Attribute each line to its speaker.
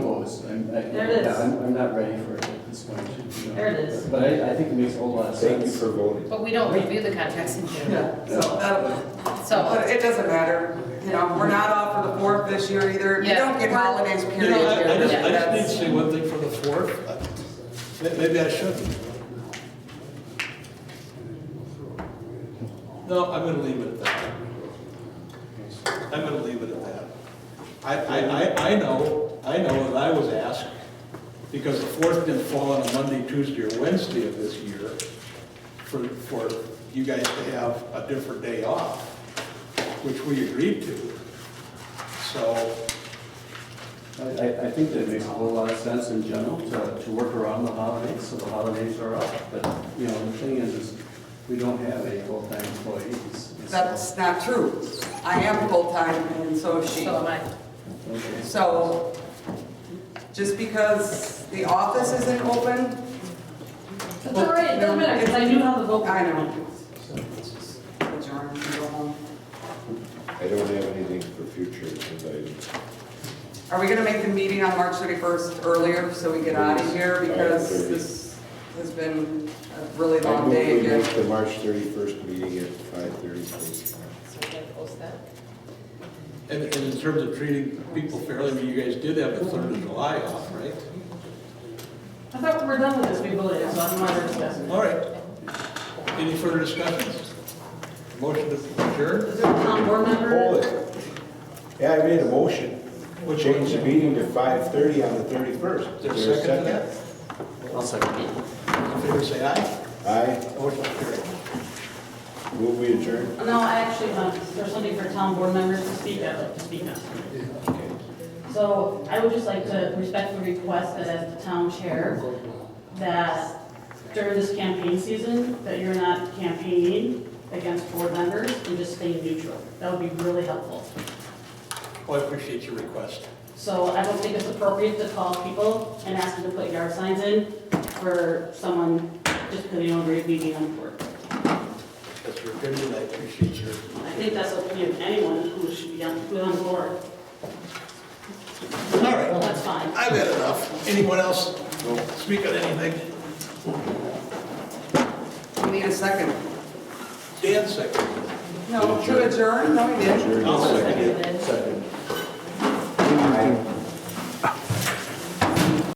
Speaker 1: mean, I,
Speaker 2: There it is.
Speaker 1: yeah, I'm, I'm not ready for it at this point. you know.
Speaker 2: There it is.
Speaker 1: But I, I think it makes a whole lot of
Speaker 3: Thank you
Speaker 1: sense.
Speaker 3: for voting.
Speaker 4: But we don't review the contracts in June,
Speaker 5: Yeah, so
Speaker 2: uh,
Speaker 5: that,
Speaker 4: so,
Speaker 5: but it doesn't matter, you know, we're not off for the fourth this year either. We
Speaker 4: Yeah.
Speaker 5: don't get holidays
Speaker 6: You
Speaker 5: period
Speaker 6: know, I I
Speaker 5: here.
Speaker 6: just, I just need to
Speaker 5: That's-
Speaker 6: say one thing for the fourth. Uh, may- Maybe I shouldn't. No, I'm gonna leave it at that. I'm gonna leave it at that. I, I, I, I know, I know that I was asked, because the fourth didn't fall on a Monday, Tuesday, or Wednesday of this year, for, for you guys to have a different day off, which we agreed to. So,
Speaker 1: I, I, I think that it makes a whole lot of sense in general to, to work around the holidays, so the holidays are up. But, you know, the thing is, is we don't have any full-time employees.
Speaker 5: That's not true. I am full-time and so is she.
Speaker 4: so am I.
Speaker 1: Okay.
Speaker 5: So, just because the office isn't open,
Speaker 2: It's all right, it doesn't matter, because I knew how the vote.
Speaker 5: I know. Adjourn and go home.
Speaker 3: I don't have anything for future agenda items.
Speaker 5: Are we gonna make the meeting on March 31st earlier so we get out of here? Because this has been a really
Speaker 3: I
Speaker 5: long
Speaker 3: move
Speaker 5: day
Speaker 3: we
Speaker 5: again.
Speaker 3: make the March 31st meeting at 5:30.
Speaker 4: So we can post that.
Speaker 6: And, and in terms of treating people fairly, I mean, you guys did have a third of July off, right?
Speaker 2: I thought we were done with this, we voted, so I'm not discussing.
Speaker 6: All right. Any further discussions? Motion to adjourn?
Speaker 2: Is there a town board member?
Speaker 3: Hold it. Yeah, I made a motion.
Speaker 6: Which
Speaker 3: Change the
Speaker 6: one?
Speaker 3: meeting to 5:30 on the 31st.
Speaker 6: Is there a second to that?
Speaker 1: I'll second it.
Speaker 6: All in favor, say aye.
Speaker 3: Aye.
Speaker 6: Motion carried.
Speaker 3: Move we adjourn.
Speaker 2: No, I actually, um, there's something for town board members to speak, I'd like to speak on.
Speaker 3: Okay.
Speaker 2: So I would just like to respectfully request that as the town chair, that during this campaign season, that you're not campaigning against board members and just staying neutral. That would be really helpful.
Speaker 6: Well, Oh, I appreciate your request.
Speaker 2: So I don't think it's appropriate to call people and ask them to put yard signs in for someone just because they don't agree with me on board.
Speaker 6: That's your opinion, I appreciate your.
Speaker 2: I think that's the opinion of anyone who should be on, who's on board.
Speaker 6: All right,
Speaker 2: That's fine.
Speaker 6: I've had enough. Anyone else speak on anything?
Speaker 5: We need a second.
Speaker 6: Dan second.
Speaker 5: No, to adjourn, no, we didn't.
Speaker 3: Adjourn.
Speaker 6: I'll second
Speaker 2: Seconded.
Speaker 3: Second.